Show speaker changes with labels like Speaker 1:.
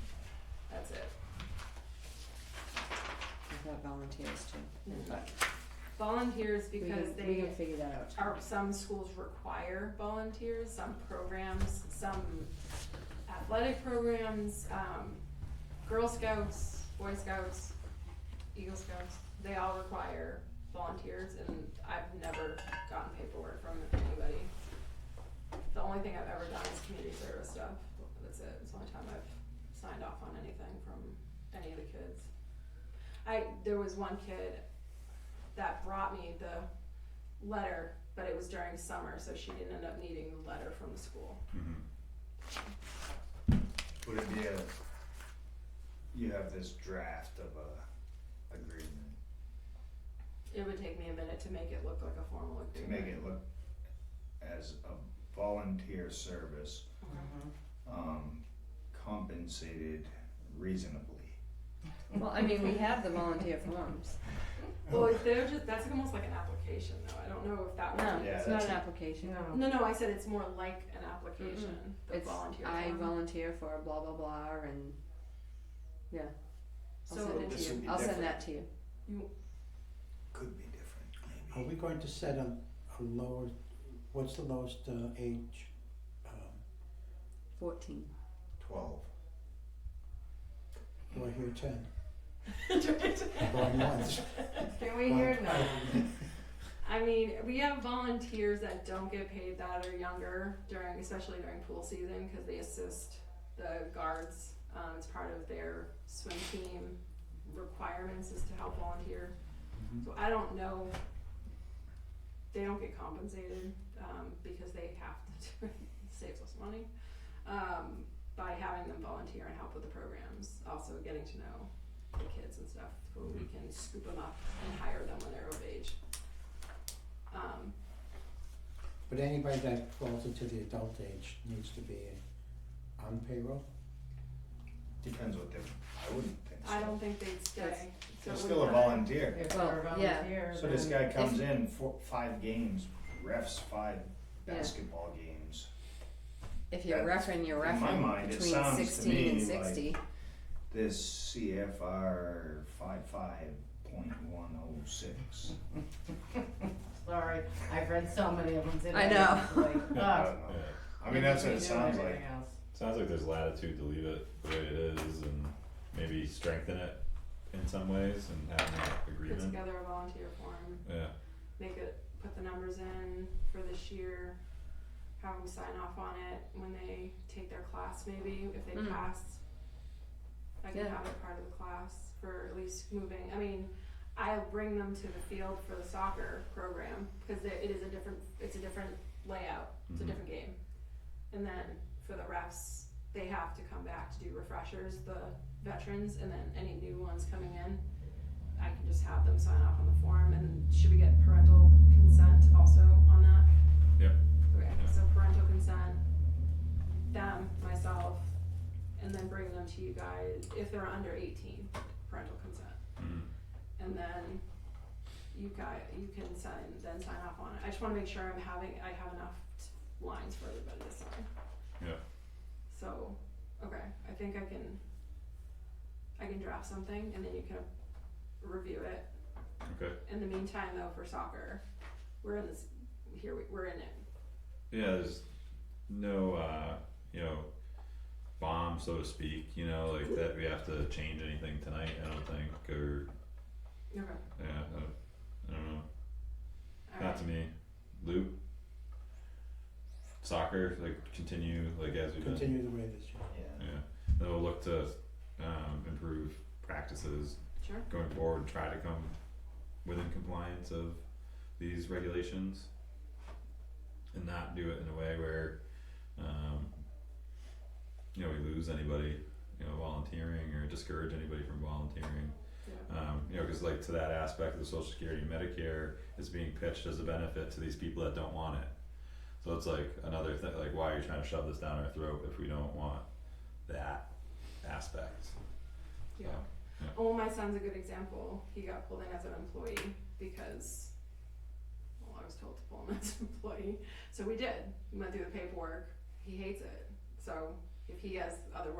Speaker 1: Mm-hmm.
Speaker 2: volunteers
Speaker 1: We
Speaker 2: because
Speaker 1: can- We
Speaker 2: they
Speaker 1: can figure that out.
Speaker 2: are, some schools require volunteers, some programs, some athletic programs, um, Girl Scouts, Boy Scouts, Eagle Scouts, they all require volunteers and I've never gotten paperwork from anybody. The only thing I've ever done is community service stuff, that's it, it's the only time I've signed off on anything from any of the kids. I, there was one kid that brought me the letter, but it was during summer, so she didn't end up needing the letter from the school.
Speaker 3: Would it be a, you have this draft of a agreement
Speaker 2: It would take me a minute to make it look like a formal
Speaker 3: to
Speaker 2: agreement.
Speaker 3: make it look as a volunteer service, um, compensated reasonably.
Speaker 1: Well, I mean, we have the volunteer forms.
Speaker 2: Well, if they're just, that's almost like an application, though. I don't know if that
Speaker 1: No,
Speaker 2: one.
Speaker 3: Yeah,
Speaker 1: it's not
Speaker 3: that's-
Speaker 1: an application.
Speaker 2: No, no, I said it's more like an application. The
Speaker 1: It's,
Speaker 2: volunteer
Speaker 1: I
Speaker 2: form.
Speaker 1: volunteer for blah, blah, blah, and, yeah. I'll
Speaker 2: So
Speaker 1: send it
Speaker 3: this
Speaker 1: to
Speaker 3: would
Speaker 1: you.
Speaker 3: be
Speaker 1: I'll send
Speaker 3: different.
Speaker 1: that to you.
Speaker 3: Could be different,
Speaker 4: Are
Speaker 3: maybe.
Speaker 4: we going to set a, a lower, what's the lowest uh, age? Um,
Speaker 1: Fourteen.
Speaker 3: Twelve.
Speaker 4: Do I hear ten? Going
Speaker 2: Can
Speaker 4: once?
Speaker 2: we hear no? I mean, we have volunteers that don't get paid that are younger during, especially during pool season, because they assist the guards. Um, it's part of their swim team requirements is to help volunteer. So I don't know. They don't get compensated um, because they have to do it. it saves us money um, by having them volunteer and help with the programs. Also getting to know the kids and stuff, who we can scoop them up and hire them when they're of age. Um,
Speaker 4: But anybody that falls into the adult age needs to be on payroll?
Speaker 3: Depends what they, I wouldn't think so.
Speaker 2: I don't think they'd stay. so
Speaker 3: They're
Speaker 2: it
Speaker 3: still a
Speaker 2: wouldn't matter.
Speaker 3: volunteer.
Speaker 5: If
Speaker 1: Well,
Speaker 5: they're a
Speaker 1: yeah.
Speaker 5: volunteer,
Speaker 3: So this
Speaker 5: then-
Speaker 3: guy comes in, four, five games, refs five
Speaker 1: Yeah.
Speaker 3: basketball games.
Speaker 1: If you're
Speaker 3: That's-
Speaker 1: roughing, you're
Speaker 3: in my
Speaker 1: roughing
Speaker 3: mind, it
Speaker 1: between
Speaker 3: sounds to
Speaker 1: sixteen and
Speaker 3: me
Speaker 1: sixty.
Speaker 3: like- This CFR five five point one oh six.
Speaker 5: Sorry, I've read so many of them today.
Speaker 1: I know.
Speaker 5: It's like,
Speaker 6: I
Speaker 5: ugh.
Speaker 3: don't know. I mean, that's what
Speaker 5: You
Speaker 3: it
Speaker 5: do
Speaker 3: sounds
Speaker 5: everything
Speaker 3: like.
Speaker 5: else.
Speaker 6: Sounds like there's latitude to leave it the way it is and maybe strengthen it in some ways and have an
Speaker 2: Put
Speaker 6: agreement.
Speaker 2: together a volunteer form,
Speaker 6: Yeah,
Speaker 2: make it, put the numbers in for this year, have them sign off on it when they take their class maybe, if they
Speaker 1: Mm.
Speaker 2: pass. I can
Speaker 1: Yeah.
Speaker 2: have it part of the class for at least moving, I mean, I bring them to the field for the soccer program, cause it it is a different, it's a different layout, it's a
Speaker 6: Mhm.
Speaker 2: different game. And then for the refs, they have to come back to do refreshers, the veterans, and then any new ones coming in. I can just have them sign off on the form, and should we get parental consent also on that?
Speaker 6: Yep.
Speaker 2: Okay, so parental consent, them, myself, and then bring them to you guys, if they're under eighteen, parental consent.
Speaker 6: mhm.
Speaker 2: And then you guys, you can sign, then sign off on it. I just wanna make sure I'm having, I have enough t- lines for everybody to sign.
Speaker 6: Yeah.
Speaker 2: So, okay, I think I can, I can draft something and then you can review it.
Speaker 6: okay.
Speaker 2: In the meantime though, for soccer, we're in this, here, we- we're in it.
Speaker 6: Yeah, there's no, uh, you know, bomb, so to speak, you know, like that we have to change anything tonight, I don't think, or,
Speaker 2: Okay.
Speaker 6: yeah, I don't, I don't know. Not
Speaker 2: Alright,
Speaker 6: to me. Loop. Soccer, like continue like as we've been.
Speaker 4: Continue the way it is.
Speaker 6: Yeah. Then we'll look to um improve practices
Speaker 2: sure,
Speaker 6: going forward, try to come within compliance of these regulations. And not do it in a way where um you know, we lose anybody, you know, volunteering or discourage anybody from volunteering.
Speaker 2: yeah,
Speaker 6: Um, you know, cause like to that aspect of the social security, Medicare is being pitched as a benefit to these people that don't want it. So it's like another thing, like why are you trying to shove this down our throat if we don't want that aspect?
Speaker 2: yeah. Oh, my son's a good example. He got pulled in as an employee because, well, I was told to pull him as an employee. So we did. We went through the paperwork. He hates it. So if he has other